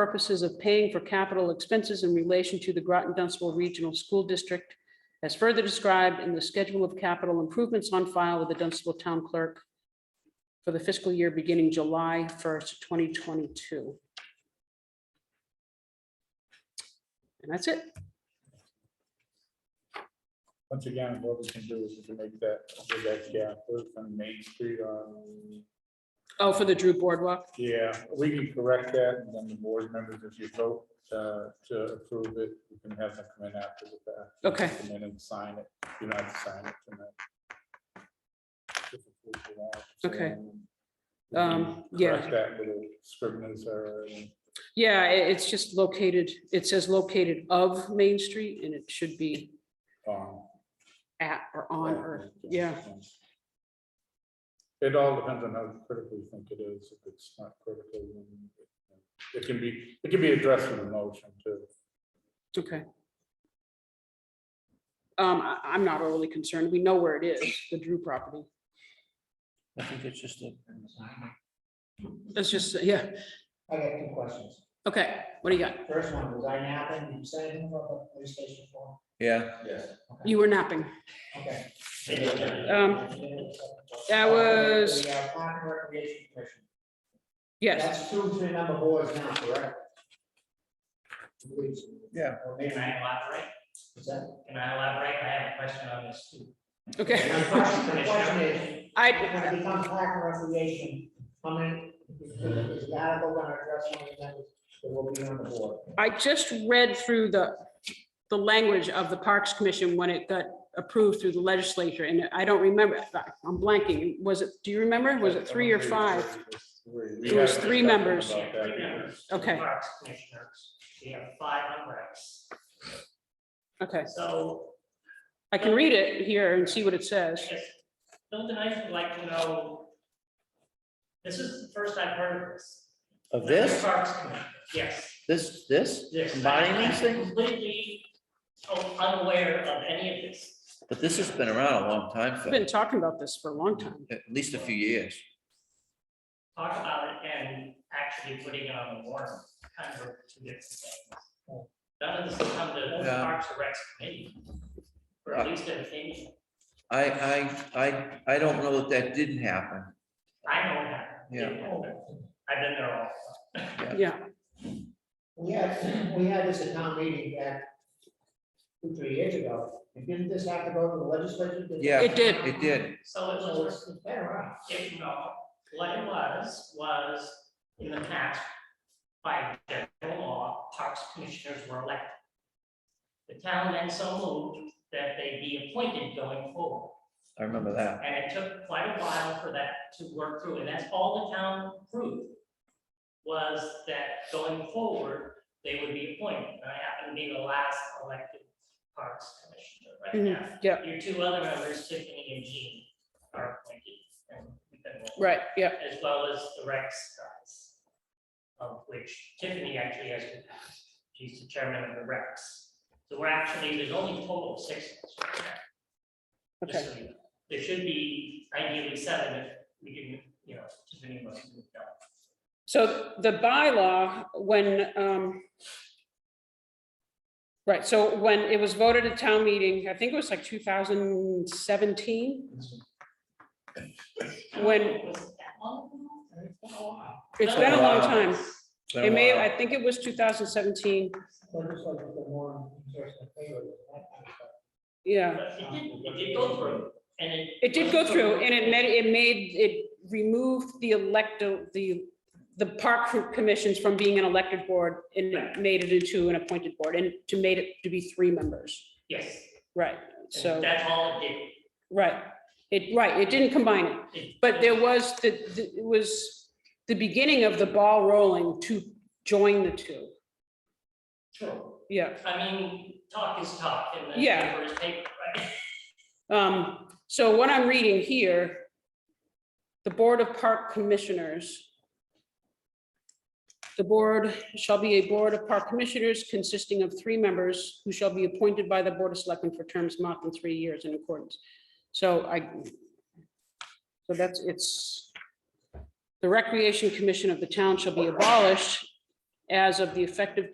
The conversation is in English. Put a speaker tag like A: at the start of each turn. A: purposes of paying for capital expenses in relation to the Groton Dunstable Regional School District as further described in the schedule of capital improvements on file with the Dunstable Town Clerk for the fiscal year beginning July first, twenty twenty-two. And that's it.
B: Once again, what we can do is we can make that, make that gap from Main Street on,
A: Oh, for the Drew Boardwalk.
B: yeah, we can correct that, and then the board members, if you vote uh, to approve it, you can have them come in after the fact.
A: Okay.
B: Come in and sign it, you don't have to sign it tonight.
A: Okay.
B: So,
A: Um,
B: we can
A: yeah.
B: correct That little scrivener's error, and
A: Yeah, i- it's just located, it says located of Main Street and it should be
B: um,
A: at or on or, yeah.
B: It all depends on how critical you think it is. If it's not critical, then it- it can be, it can be addressed with a motion too.
A: Okay. Um, I, I'm not overly concerned. We know where it is, the Drew property.
C: I think it's just a.
A: It's just, uh, yeah,
D: I got two questions.
A: okay, what do you got?
D: First one, was I napping? Did you say anything about the police station floor?
C: Yeah.
D: Yes.
A: You were napping.
D: Okay.
A: Um, that was-
D: The uh, Park and Recreation Commission.
A: Yes,
D: That's two to the number boards now, correct? Please.
C: Yeah.
D: Okay,
E: Can I elaborate?
D: is that?
E: Can I elaborate? I have a question on this too.
A: okay.
D: My question my question is,
A: I,
D: when it becomes Park and Recreation, how many, is the article gonna address one of them that will be on the board?
A: I just read through the, the language of the Parks Commission when it got approved through the legislature, and I don't remember, I'm blanking. Was it, do you remember? Was it three or five?
B: It
A: was three members.
E: Three members, two
A: Okay.
E: Parks commissioners, we have five on reps.
A: Okay,
E: So
A: I can read it here and see what it says.
E: I guess, Bill and I would like to know, this is the first I've heard of this.
C: Of this,
E: Parks Commission, yes,
C: this, this,
E: this.
C: combining these
E: I'm
C: things,
E: Completely unaware of any of this.
C: but this has been around a long time,
A: I've been
C: Phil.
A: talking about this for a long time.
C: at least a few years.
E: Talk about it and actually putting it on the warrant, kind of two different things. None of this has come to
C: Yeah. Uh,
E: Parks and Recs committee. Or at least an opinion.
C: I, I, I, I don't know that that didn't happen.
E: I know that.
C: Yeah.
E: I've been there all.
A: Yeah,
D: We had, we had this at town meeting back two, three years ago, and didn't this have to go to the legislature?
C: Yeah.
A: It did.
C: It did.
E: So it
D: So
E: was,
D: it's it's been around.
E: if you know, what it was, was in the past, by general law, parks commissioners were elected. The town then so moved that they be appointed going forward.
C: I remember that.
E: And it took quite a while for that to work through, and that's all the town proved. Was that going forward, they would be appointed, and I happen to be the last elected parks commissioner right
A: mhm, yeah,
E: now. Your two other members, Tiffany and Jean, are appointed. and we've been one,
A: right, yeah.
E: As well as the Rex guys. Of which Tiffany actually has been, she's the chairman of the Rex. So we're actually, there's only a total of six. of us right now.
A: Okay,
E: Just so you know. There should be ideally seven if we can, you know, if anyone can move down.
A: so the bylaw, when, um, right, so when it was voted at town meeting, I think it was like two thousand seventeen. When-
E: Was it that long? ago? It's been a while.
A: It's been a long time.
C: It's been a
A: It may,
C: while.
A: I think it was two thousand seventeen,
D: Legislature for more interesting favor. that kind of stuff.
A: yeah.
E: But It did, it did go through and it.
A: It did go through and it made, it made, it removed the electo, the, the park commissions from being an elected board and it made it into an appointed board and to made it to be three members.
E: Yes.
A: Right, so,
E: That's all it did.
A: right. It, right, it didn't combine it.
E: It-
A: But there was, the, the- it was the beginning of the ball rolling to join the two.
E: True.
A: Yeah.
E: I mean, talk is talk and the
A: Yeah.
E: paper is paper, right?
A: Um, so what I'm reading here, the Board of Park Commissioners. The board shall be a Board of Park Commissioners consisting of three members who shall be appointed by the Board of Selectmen for terms not than three years in accordance. So I, so that's, it's, the Recreation Commission of the town shall be abolished as of the effective